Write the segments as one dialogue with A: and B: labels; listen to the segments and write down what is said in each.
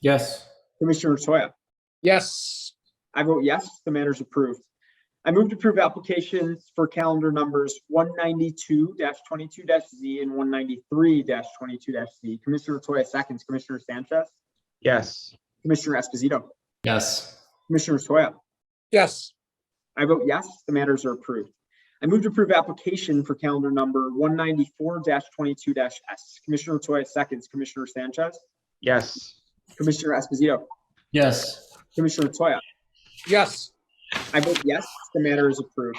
A: Yes.
B: Commissioner Toya,
C: Yes,
B: I vote yes, the matter is approved. I move to approve applications for calendar numbers one ninety-two twenty-two Z and one ninety-three twenty-two Z. Commissioner Toya seconds, Commissioner Sanchez,
D: yes,
B: Commissioner Esposito,
A: Yes.
B: Commissioner Toya.
C: yes,
B: I vote yes, the matters are approved. I move to approve application for calendar number one ninety-four twenty-two S. Commissioner Toya seconds, Commissioner Sanchez,
D: yes,
B: Commissioner Esposito,
A: Yes.
B: Commissioner Toya.
C: yes,
B: I vote yes, the matter is approved.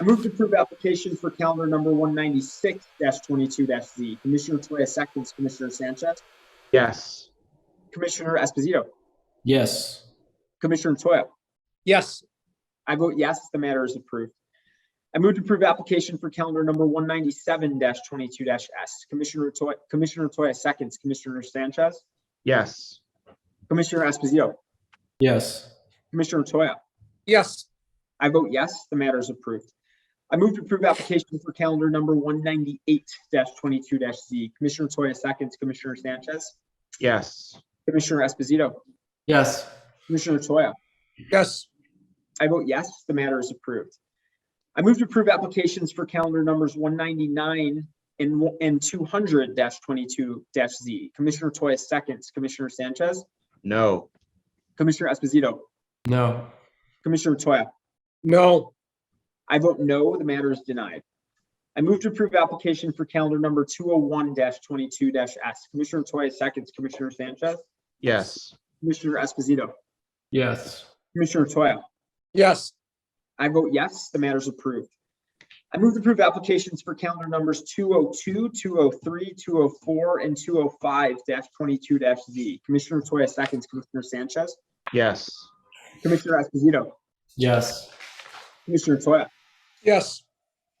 B: I move to approve application for calendar number one ninety-six twenty-two Z. Commissioner Toya seconds, Commissioner Sanchez,
D: yes,
B: Commissioner Esposito,
A: Yes.
B: Commissioner Toya.
C: yes,
B: I vote yes, the matter is approved. I move to approve application for calendar number one ninety-seven twenty-two S. Commissioner Toya, Commissioner Toya seconds, Commissioner Sanchez,
D: yes,
B: Commissioner Esposito,
A: Yes.
B: Commissioner Toya.
C: yes,
B: I vote yes, the matter is approved. I move to approve application for calendar number one ninety-eight twenty-two Z. Commissioner Toya seconds, Commissioner Sanchez,
D: yes,
B: Commissioner Esposito,
A: Yes.
B: Commissioner Toya.
C: yes,
B: I vote yes, the matter is approved. I move to approve applications for calendar numbers one ninety-nine and, one- and two hundred twenty-two Z. Commissioner Toya seconds, Commissioner Sanchez,
D: no,
B: Commissioner Esposito,
A: No.
B: Commissioner Toya.
C: no,
B: I vote no, the matter is denied. I move to approve application for calendar number two oh one twenty-two S. Commissioner Toya seconds, Commissioner Sanchez,
D: yes,
B: Commissioner Esposito,
A: Yes.
B: Commissioner Toya.
C: yes,
B: I vote yes, the matter is approved. I move to approve applications for calendar numbers 202, 203, 204, and two oh five twenty-two Z. Commissioner Toya seconds, Commissioner Sanchez,
D: yes,
B: Commissioner Esposito,
A: Yes.
B: Commissioner Toya.
C: yes,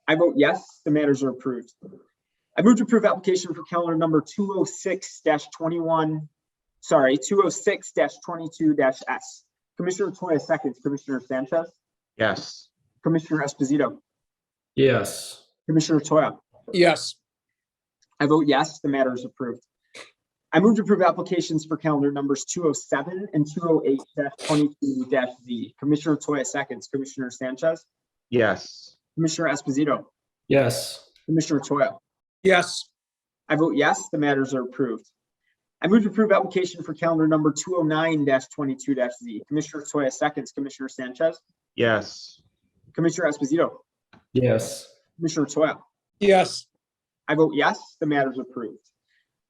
B: I vote yes, the matters are approved. I move to approve application for calendar number two oh six twenty-one, sorry, two oh six twenty-two S. Commissioner Toya seconds, Commissioner Sanchez,
D: yes,
B: Commissioner Esposito,
A: Yes.
B: Commissioner Toya.
C: yes,
B: I vote yes, the matter is approved. I move to approve applications for calendar numbers two oh seven and two oh eight twenty-two Z. Commissioner Toya seconds, Commissioner Sanchez,
D: yes,
B: Commissioner Esposito,
A: Yes.
B: Commissioner Toya.
C: yes,
B: I vote yes, the matters are approved. I move to approve application for calendar number two oh nine twenty-two Z. Commissioner Toya seconds, Commissioner Sanchez,
D: yes,
B: Commissioner Esposito,
A: Yes.
B: Commissioner Toya.
C: yes,
B: I vote yes, the matter is approved.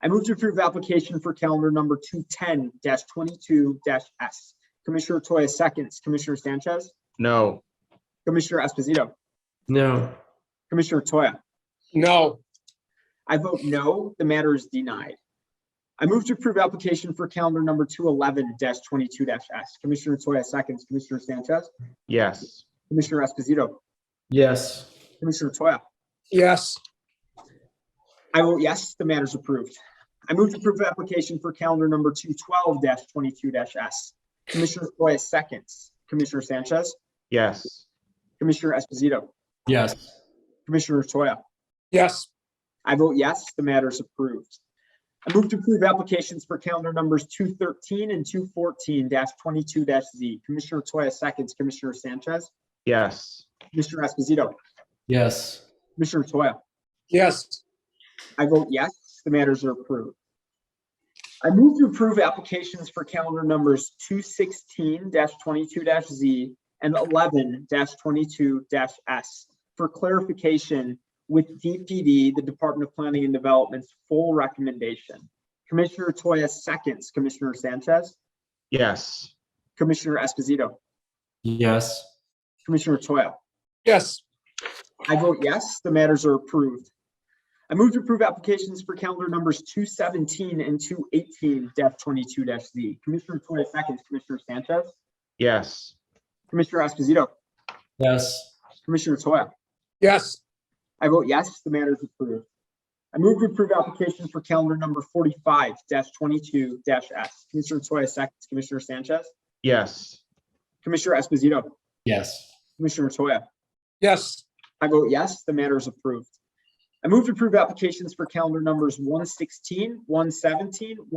B: I move to approve application for calendar number two ten twenty-two S. Commissioner Toya seconds, Commissioner Sanchez,
D: no,
B: Commissioner Esposito,
A: No.
B: Commissioner Toya.
C: no,
B: I vote no, the matter is denied. I move to approve application for calendar number two eleven twenty-two S. Commissioner Toya seconds, Commissioner Sanchez,
D: yes,
B: Commissioner Esposito,
A: Yes.
B: Commissioner Toya.
C: yes,
B: I vote yes, the matter is approved. I move to approve application for calendar number two twelve twenty-two S. Commissioner Toya seconds, Commissioner Sanchez,
D: yes,
B: Commissioner Esposito,
A: Yes.
B: Commissioner Toya.
C: yes,
B: I vote yes, the matter is approved. I move to approve applications for calendar numbers two thirteen and two fourteen twenty-two Z. Commissioner Toya seconds, Commissioner Sanchez,
D: yes,
B: Commissioner Esposito,
A: Yes.
B: Commissioner Toya.
C: yes,
B: I vote yes, the matters are approved. I move to approve applications for calendar numbers two sixteen twenty-two Z and eleven twenty-two S for clarification with DPD, the Department of Planning and Development's full recommendation. Commissioner Toya seconds, Commissioner Sanchez,
D: yes,
B: Commissioner Esposito,
A: Yes.
B: Commissioner Toya.
C: yes,
B: I vote yes, the matters are approved. I move to approve applications for calendar numbers two seventeen and two eighteen twenty-two Z. Commissioner Toya seconds, Commissioner Sanchez,
D: yes,
B: Commissioner Esposito,
A: Yes.
B: Commissioner Toya.
C: yes,
B: I vote yes, the matter is approved. I move to approve application for calendar number forty-five twenty-two S. Commissioner Toya seconds, Commissioner Sanchez,
D: yes,
B: Commissioner Esposito,
A: Yes.
B: Commissioner Toya.
C: yes,
B: I vote yes, the matter is approved. I move to approve applications for calendar numbers 116, 117,